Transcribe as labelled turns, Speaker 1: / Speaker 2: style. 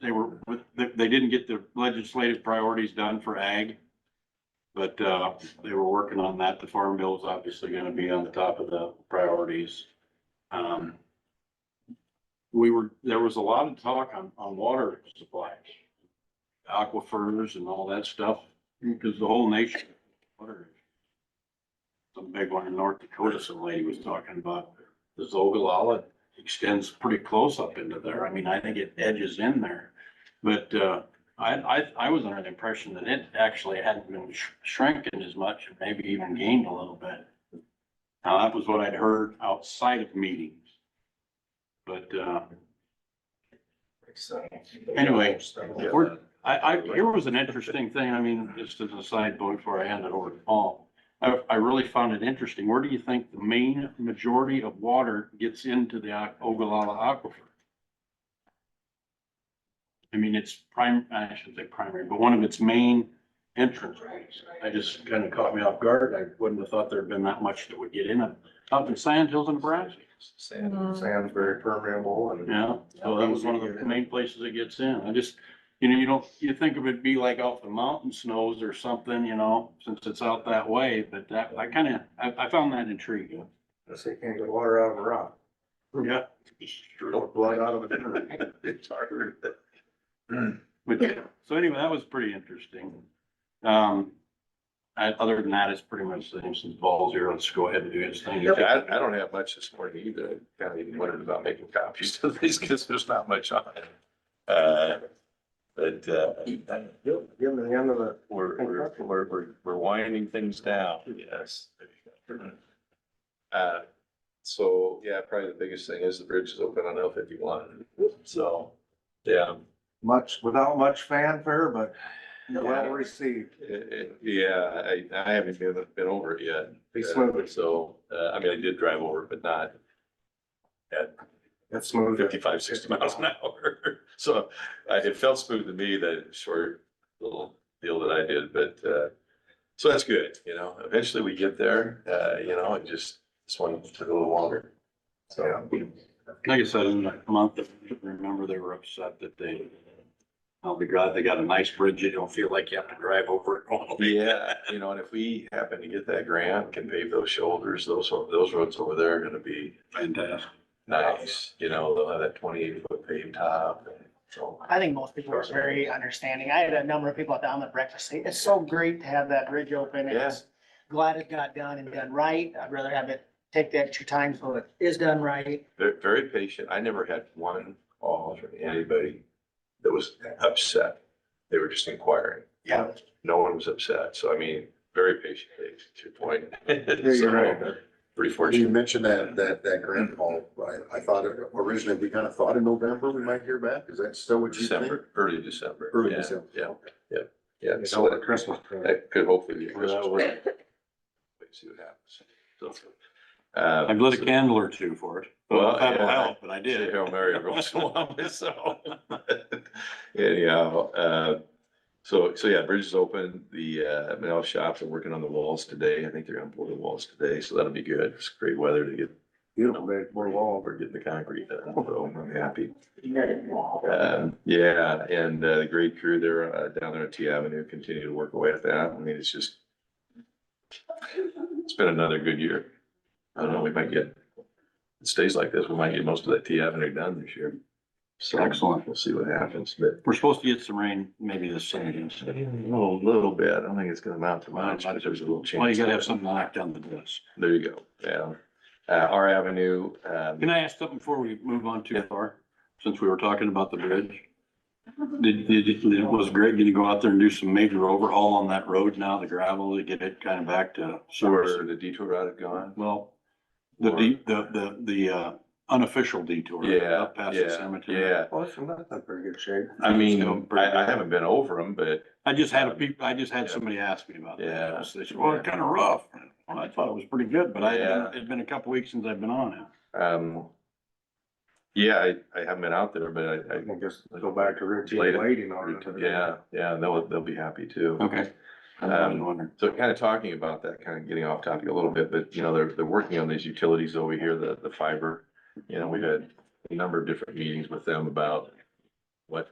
Speaker 1: They were, they, they didn't get the legislative priorities done for ag. But, uh, they were working on that. The farm bill is obviously gonna be on the top of the priorities. Um. We were, there was a lot of talk on, on water supplies. Aquifers and all that stuff, because the whole nation. water is- Some big one in North Dakota, some lady was talking about, the Zogalala extends pretty close up into there. I mean, I think it edges in there. But, uh, I, I, I was under the impression that it actually hadn't been sh- shrinking as much, and maybe even gained a little bit. Now, that was what I'd heard outside of meetings. But, uh, Anyway, we're- I, I, here was an interesting thing, I mean, just as a side note before I hand it over to Paul. I, I really found it interesting, where do you think the main majority of water gets into the Oc- Ogallala Aquifer? I mean, it's prime, I shouldn't say primary, but one of its main entrance points. I just kind of caught me off guard, I wouldn't have thought there'd been that much that would get in it, out in Sand Hills in Nebraska.
Speaker 2: Mm.
Speaker 3: Sand, sand's very permeable and.
Speaker 1: Yeah, so that was one of the main places it gets in. I just, you know, you don't, you think of it be like off the mountain snows or something, you know, since it's out that way, but that, I kinda, I, I found that intriguing.
Speaker 3: I say can't get water out of a rock,
Speaker 1: Yeah.
Speaker 3: or blood out of a dinner. It's hard.
Speaker 1: But, so anyway, that was pretty interesting. Um, I, other than that, it's pretty much the same since Paul's here. Let's go ahead and do his thing.
Speaker 4: Yeah, I, I don't have much this morning either. Kind of even wondered about making copies of these because there's not much on it. Uh, But, uh,
Speaker 3: Give give them the end of the,
Speaker 4: we're, we're, we're, we're- we're winding things down, yes. Uh, so, yeah, probably the biggest thing is the bridge is open on L fifty-one, so, yeah.
Speaker 3: much, without much fanfare, but well
Speaker 4: Yeah.
Speaker 3: received.
Speaker 4: It- it- Yeah, I, I haven't been, been over it yet.
Speaker 3: Be smooth.
Speaker 4: So, uh, I mean, I did drive over, it, but not at
Speaker 3: It's smooth.
Speaker 4: 55, 60 miles an hour. So I, it felt smooth to me, that short little deal that I did, but, uh, so that's good, you know, eventually we get there, uh, you know, it just, this one took a little longer. So,
Speaker 1: Like I said, in a month, I remember they were upset that they, I'll be glad they got a nice bridge. You don't feel like you have to drive over it all day.
Speaker 4: yeah, you know, and if we happen to get that grant, can pave those shoulders, those, those roads over there are gonna be
Speaker 1: Fantastic.
Speaker 4: nice, you know, they'll have that twenty-eight foot paved top. and so-
Speaker 2: I think most people are very understanding. I had a number of people down at breakfast, say, it's so great to have that bridge open.
Speaker 4: Yeah.
Speaker 2: It's Glad it got done and done right. I'd rather have it take the extra time so it is done right.
Speaker 4: Very, very patient. I never had one call from anybody that was upset. They were just inquiring.
Speaker 2: Yeah.
Speaker 4: No one was upset. So I mean, very patient, Dave, to your point.
Speaker 3: Yeah, you're
Speaker 4: So,
Speaker 3: right.
Speaker 4: Pretty
Speaker 5: You
Speaker 4: fortunate.
Speaker 5: mentioned that, that, that grant call, Oh, I, I thought it- originally, we kind of thought in November we might hear back, is that still what you think?
Speaker 4: December, early December.
Speaker 5: Early
Speaker 4: Yeah,
Speaker 5: December.
Speaker 4: Yeah, yeah.
Speaker 3: It's
Speaker 4: So
Speaker 3: all
Speaker 4: that-
Speaker 3: Christmas.
Speaker 4: that could hopefully be Christmas.
Speaker 1: Well, that
Speaker 4: Wait, See what happens. So, uh,
Speaker 1: I've lit a
Speaker 4: so-
Speaker 1: candle or two for it.
Speaker 4: Well,
Speaker 1: That'll
Speaker 4: yeah.
Speaker 1: help, but I
Speaker 4: Say
Speaker 1: did.
Speaker 4: Hail Mary every once in a while myself. Anyhow, uh, so, so yeah, bridge is open. The, uh, metal shops are working on the walls today. I think they're gonna pour the walls today, so that'll be good. It's great weather to get,
Speaker 3: Beautiful day, more
Speaker 4: we're
Speaker 3: long.
Speaker 4: wall, we're getting the concrete done, so I'm happy. Um, yeah, and, uh, the great crew there, uh, down there at T Avenue continue to work away at that. I mean, it's just, it's been another good year. I don't know, we might get, it stays like this, we might get most of that T Avenue done this year. So
Speaker 1: Excellent.
Speaker 4: We'll see what happens, but
Speaker 1: We're supposed to get some rain maybe this Sunday.
Speaker 4: a little, little bit. I don't think it's gonna amount to much, but there's a little chance.
Speaker 1: Well, you gotta have something to knock down the dust.
Speaker 4: There you go. Yeah. Uh, R Avenue, um,
Speaker 1: Can I ask something before we move on too
Speaker 4: Yeah.
Speaker 1: far? Since we were talking about the bridge. Did, did, did- was Greg gonna go out there and do some major overhaul on that road now, the gravel, to get it kind of back to
Speaker 4: where
Speaker 1: service?
Speaker 4: the detour route had gone.
Speaker 1: Well, the,
Speaker 4: Or-
Speaker 1: de- the, the, the, uh, unofficial detour.
Speaker 4: Yeah,
Speaker 1: Up past the
Speaker 4: yeah,
Speaker 1: cemetery.
Speaker 4: yeah.
Speaker 3: Well, it's not in very good shape.
Speaker 4: I
Speaker 1: Still
Speaker 4: mean,
Speaker 1: pretty
Speaker 4: I, I
Speaker 1: good.
Speaker 4: haven't been over them, but
Speaker 1: I just had a peop, I just had somebody ask me about
Speaker 4: Yeah.
Speaker 1: that. They said, well, it's kind of rough. Well, I thought it was pretty good, but I,
Speaker 4: Yeah.
Speaker 1: it's been a couple weeks since I've been on it.
Speaker 4: Um, yeah, I, I haven't been out there, but I,
Speaker 3: I
Speaker 4: I,
Speaker 3: can just go back to routine
Speaker 4: Later.
Speaker 3: waiting on it.
Speaker 4: yeah, yeah, they'll, they'll be happy too.
Speaker 1: Okay. I was
Speaker 4: Um,
Speaker 1: wondering.
Speaker 4: So kind of talking about that, kind of getting off topic a little bit, but you know, they're, they're working on these utilities over here, the, the fiber. You know, we've had a number of different meetings with them about what